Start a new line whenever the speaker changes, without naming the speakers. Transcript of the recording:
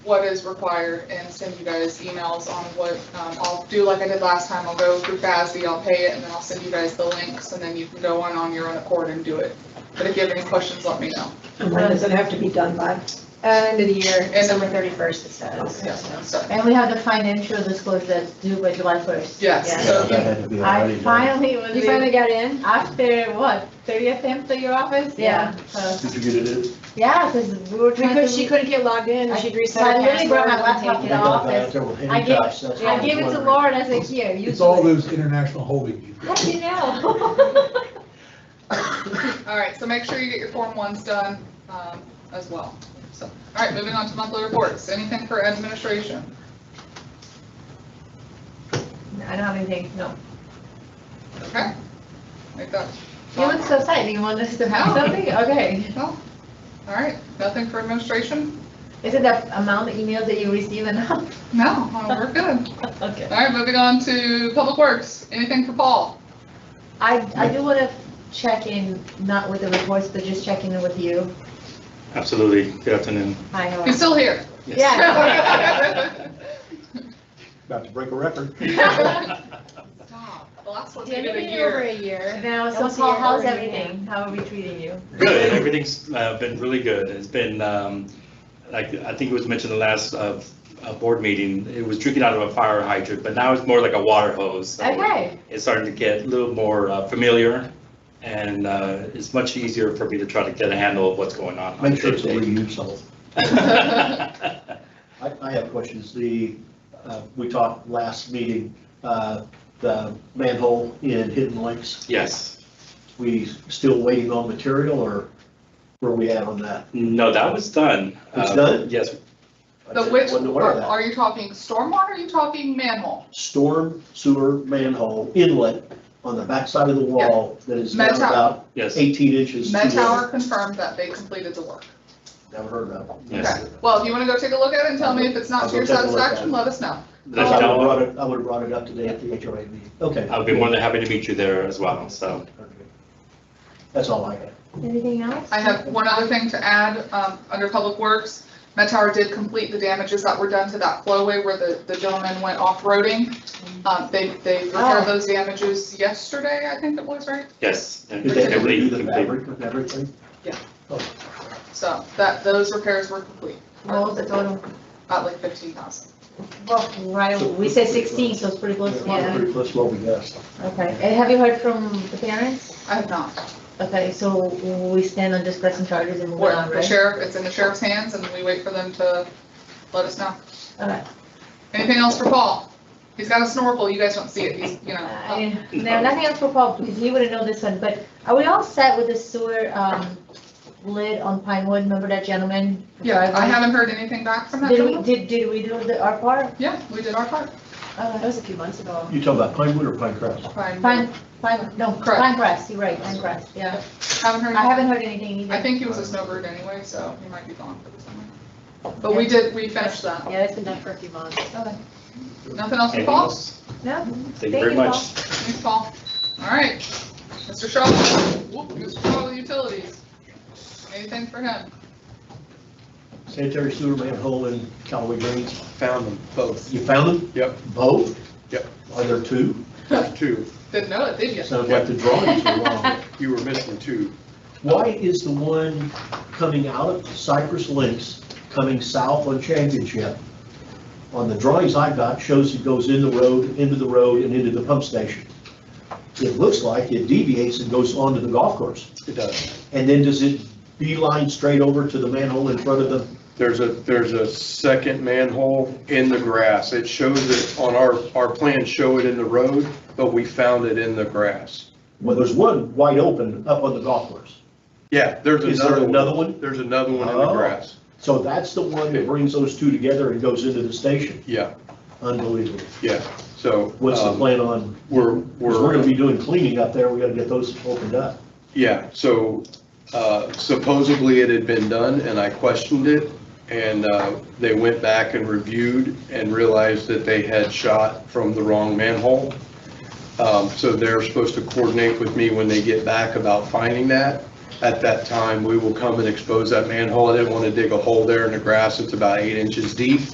what is required and send you guys emails on what, um, I'll do like I did last time, I'll go through FASB, I'll pay it, and then I'll send you guys the links, and then you can go on on your own accord and do it. But if you have any questions, let me know.
And when does it have to be done by?
Uh, End of the year,
December
December thirty-first, it says.
Yes, so,
And we have the financial disclosure that's due by July 1st.
yes, so,
Uh, That had to be
I
already done.
finally was,
You finally
able-
got in?
after what, 30 attempts at your office?
Yeah.
So,
Did you get it in?
yeah, because we were trying
Because she
to,
couldn't get logged in, she'd reset
So I
her
literally
password.
brought my
and
laptop
take
in
it.
the office. I gave- I gave it to Laura, and I said, here, use it.
It's all those international holding you've
How
got.
do you know?
all right, so make sure you get your Form 1s done um, as well. So, all right, moving on to monthly reports. Anything for administration?
I don't have anything, no.
Okay. Make that.
You look so sad, you want us to have
No.
something? Okay.
All right, nothing for administration?
Is it the amount of emails that you receive enough?
No, uh, we're good.
Okay.
All right, moving on to public works. Anything for Paul?
I, I do want to check in, not with the reports, but just checking in with you.
Absolutely. Good afternoon.
Hi, how are
He's
you?
still here.
Yeah.
About to break a record.
Stop. The last one's
Didn't
been a
it over
year.
a year.
Now,
That
so
was
Paul,
the
how's
order, yeah.
everything? How are we treating you?
Good. Everything's uh, been really good. It's been, um, like, I think it was mentioned the last uh, uh, board meeting, it was drinking out of a fire hydrant, but now it's more like a water hose. So
Okay,
It's starting to get a little more uh, familiar, and uh, it's much easier for me to try to get a handle of what's going on.
Make sure it's a reusable.
reusable.
I, I have questions. The, uh, we talked last meeting, uh, the manhole in Hidden Lakes.
Yes.
We still waiting on material or where we at on that?
No, that was done.
It's
Uh,
done?
Yes.
I
The
just
which,
Wasn't aware of that.
are you talking stormwater? Are you talking manhole?
Storm sewer manhole inlet on the backside of the wall that is down
Met Tower.
about
Yes.
eighteen inches. to
Met
the-
Tower confirmed that they completed the work.
Never heard of that.
Yes.
Well, if you want to go take a look at it and tell me if it's not to your
I'll go take a look at
satisfaction,
it.
let us know.
There's
I would have
no-
brought it, I would have brought it up today at the HOA meeting. Okay.
I'll be more than happy to meet you there as well, so.
That's all I got.
anything else?
I have one other thing to add, um, under Public Works. Met Tower did complete the damages that were done to that flowway where the, the gentleman went off-roading. Um, they, they repaired
Oh.
those damages yesterday, I think it was, right?
Yes.
Did they ever
Complete-
do the
complete.
fabric with everything?
So that, those repairs were complete,
What was the total?
at like fifteen thousand.
Well, right, we said 16, so it's pretty close,
Yeah,
yeah.
Pretty close to what we got.
Okay, and have you heard from the parents?
I have not.
Okay, so we stand on discussing charges and moving on,
The
right?
sheriff, it's in the sheriff's hands and we wait for them to let us know.
Okay.
Anything else for Paul? He's got a snorkel, you guys don't see it, he's, you know. up.
Uh, No, nothing else for Paul, because he wouldn't know this one, but are we all set with the sewer um, lid on Pinewood? Remember that gentleman?
Yeah, I haven't heard anything back from that
Did we,
gentleman.
did, did we do the, our part? Uh,
Yeah, we did our part.
That
Okay.
was a few months ago.
You talking about pine wood or pine crest?
Fine.
Pine, pine, no,
Correct.
pine grass, you're right, pine grass, yeah.
Haven't heard.
I haven't heard anything
I
either.
think he was a snowbird anyway, so he might be gone for the summer. But we did, we finished that.
Yeah, it's been done for a few months.
Nothing else for
Anything
Paul?
else?
No?
Thank you very much.
Thanks, Paul. All right. Mr. Shaw, whoop, Mr. Shaw with utilities. Anything for him?
Sanitary sewer manhole in Callaway Greens.
Found them both.
You found them?
Yep.
Both?
Yep.
Are there two?
Two.
Didn't know it, did you?
Sounds like the drawings are wrong.
You were missing two.
Why is the one coming out of Cypress Links, coming south on Championship? On the drawings I got, shows it goes in the road, into the road, and into the pump station. It looks like it deviates and goes onto the golf course.
It does.
And then does it beeline straight over to the manhole in front of the
There's a, there's a second manhole in the grass. It shows it on our, our plans show it in the road, but we found it in the grass.
Well, there's one wide open up on the golf course.
Yeah, there's
Is there
another.
another one?
There's another one in the
Oh.
grass.
So that's the one that brings those two together and goes into the station.
Yeah,
Unbelievable.
yeah. So.
What's the
um,
plan on,
We're,
because we're
we're,
gonna be doing cleaning up there, we gotta get those opened up.
yeah, so uh, supposedly it had been done and I questioned it. And uh, they went back and reviewed and realized that they had shot from the wrong manhole. Um, So they're supposed to coordinate with me when they get back about finding that. at that time, we will come and expose that manhole. I didn't want to dig a hole there in the grass. It's about eight inches deep.